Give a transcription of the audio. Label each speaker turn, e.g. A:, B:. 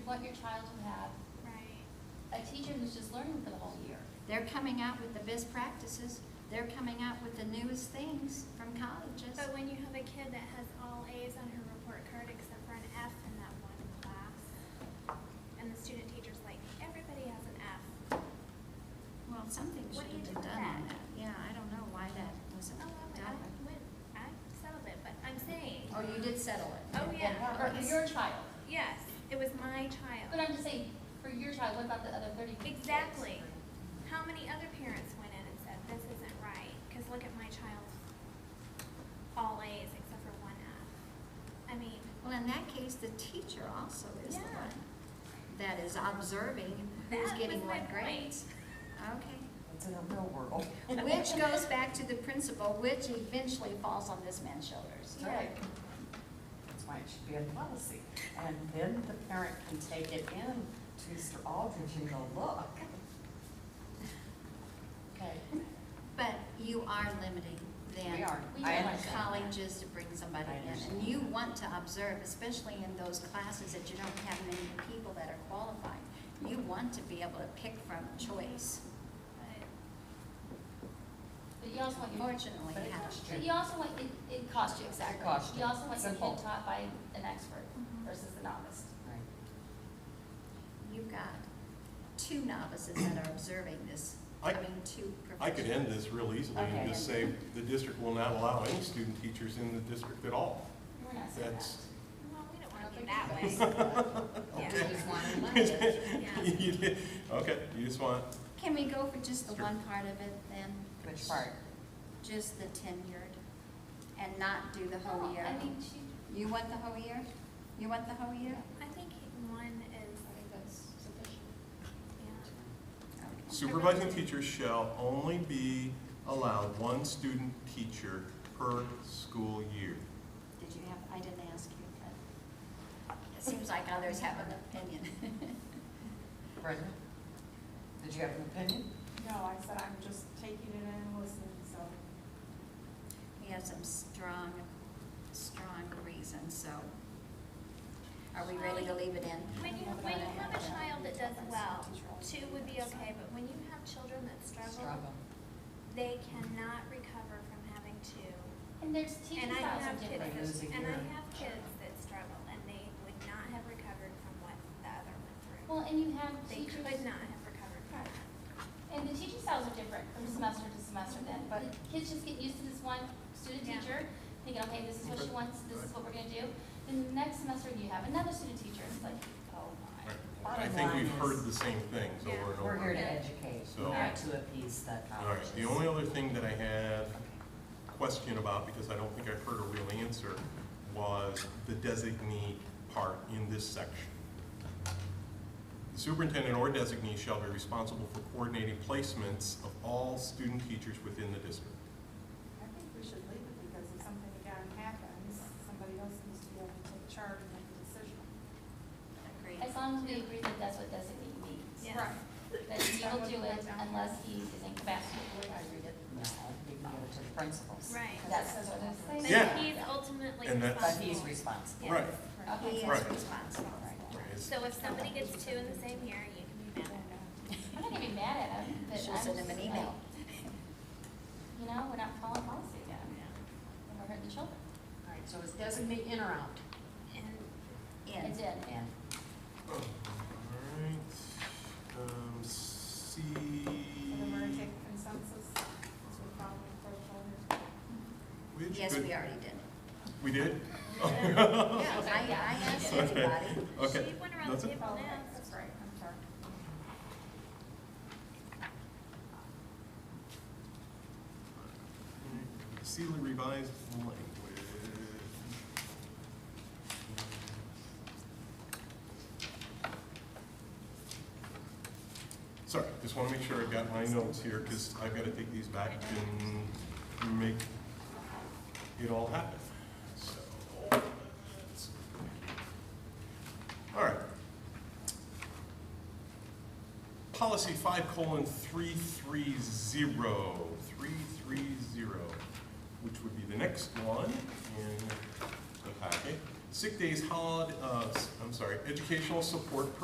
A: what your child will have.
B: Right.
A: A teacher who's just learning for the whole year.
C: They're coming out with the best practices. They're coming out with the newest things from colleges.
B: But when you have a kid that has all A's on her report card except for an F in that one class, and the student teacher's like, everybody has an F.
C: Well, something
B: What
C: should
B: do you do
C: have been
B: with
C: done on
B: that?
C: that. Yeah, I don't know why that wasn't
B: Oh, I, I
C: done.
B: went, I settled it, but I'm saying,
C: Oh, you did settle it.
B: Oh, yeah.
A: Or for your child.
B: yes, it was my
A: But
B: child.
A: I'm just saying, for your child, what about the other thirty kids?
B: Exactly. How many other parents went in and said, this isn't right, cause look at my child's all A's except for one F? I mean,
C: Well, in that case, the teacher also is the
B: Yeah.
C: one that is observing who's
B: That
C: getting
B: was my
C: what
B: point.
C: grades. Okay.
D: It's in the real world.
C: Which goes back to the principal, which eventually falls on this man's shoulders.
B: Yeah.
D: Right. That's why it should be in policy. And then the parent can take it in to Mr. Aldridge and go, look. Okay,
C: But you are limiting them.
D: we are.
A: We
D: I
A: are.
D: understand.
C: Colleges to bring somebody
D: I
C: in,
D: understand.
C: and you want to observe, especially in those classes that you don't have many people that are qualified. You want to be able to pick from choice.
B: but.
A: But you also want your,
C: Unfortunately,
D: But it
C: yeah.
D: costs
A: but you also want, it, it costs you, exactly.
D: costs
A: You
D: you.
A: also want your
D: Simple.
A: kid taught by an expert
B: Mm-hmm.
A: versus a novice.
D: Right.
C: You've got two novices that are observing this,
E: I-
C: coming to
E: I could
C: professional.
E: end this real easily and just say, the district will not allow any student teachers in the district at all.
A: We're not saying that.
E: That's,
B: Well, we don't
A: I
B: want
A: don't
B: to be
A: think
B: that way.
E: okay.
B: Yeah.
E: You did- Okay, you just want,
C: Can we go for just the
E: Sure.
C: one part of it then?
D: Which part?
C: Just the tenured, and not do the
A: No,
C: whole year?
A: I mean, she,
C: You want the whole year? You want the whole year?
B: I think one is,
A: I think that's sufficient.
B: yeah,
C: Okay.
E: supervising teachers shall only be allowed one student teacher per school year.
C: Did you have, I didn't ask you, but it seems like others have an opinion.
D: Brenda? Did you have an opinion?
F: No, I said I'm just taking it in and listening, so.
C: We have some strong, strong reasons, so are we ready to leave it in?
B: when you, when you have a child that does well, two would be okay, but when you have children that struggle,
D: Struggle.
B: they cannot recover from having two.
A: And there's teaching
B: And I
A: styles are
B: have kids,
A: different.
D: Lose a
B: that- and I
D: year.
B: have kids that struggle, and they would not have recovered from what the other went through.
A: Well, and you have
B: They
A: teachers,
B: could not have recovered from that.
A: and the teaching styles are different from semester to semester then, but kids just get used to this one student
B: Yeah.
A: teacher, thinking, okay, this is what she
E: Okay.
A: wants, this is what we're gonna do. Then the next semester, you have another student teacher, it's like, oh my.
E: I think we've heard the same things over and
B: Yeah.
E: over.
D: We're here to educate,
E: So-
D: not to appease the
E: All right,
D: colleges.
E: the only other thing that I had a question about, because I don't think I've heard a real answer, was the designee part in this section. The superintendent or designee shall be responsible for coordinating placements of all student teachers within the district.
F: I think we should leave it because if something again happens, somebody else needs to be able to take charge and make a decision.
C: Agreed.
A: As long as we agree that that's what designate means,
B: Yeah.
A: that he will do it unless he is incapacitated.
D: No, we can give it to the principals.
B: Right.
A: That's what I'm saying.
B: But
E: Yeah.
B: he's ultimately
E: And that's-
D: But he's
B: responsible.
D: responsible.
B: Yes.
E: Right.
C: He
A: Okay,
C: is
E: Right.
C: responsible.
E: It's-
B: So if somebody gets two in the same year, you can be mad at
F: uh,
B: them.
A: I'm not gonna be mad at him, but I'm
C: She'll send him
A: just
C: an
A: like,
C: email.
A: You know, we're not following policy again, we're hurting the children.
D: All right, so it's designate in or out?
B: And
C: In.
A: It's in.
D: In.
E: All right, um, C.
F: So then we're gonna take consensus, as we follow the protocol.
E: which
C: Yes,
E: could-
C: we already did.
E: We did?
C: Yeah,
E: Oh,
C: I, I asked everybody.
E: Okay.
B: she went around
E: That's
B: the
E: it.
B: table
F: Oh,
B: and
F: okay,
B: asked.
F: that's right, I'm sorry.
E: See the revised language. Sorry, just want to make sure I've got my notes here, because I've got to take these back and make it all happen. So, let's- all right. Policy five colon three three zero, three three zero, which would be the next one in the packet. Sick days, holiday, uh, I'm sorry, educational support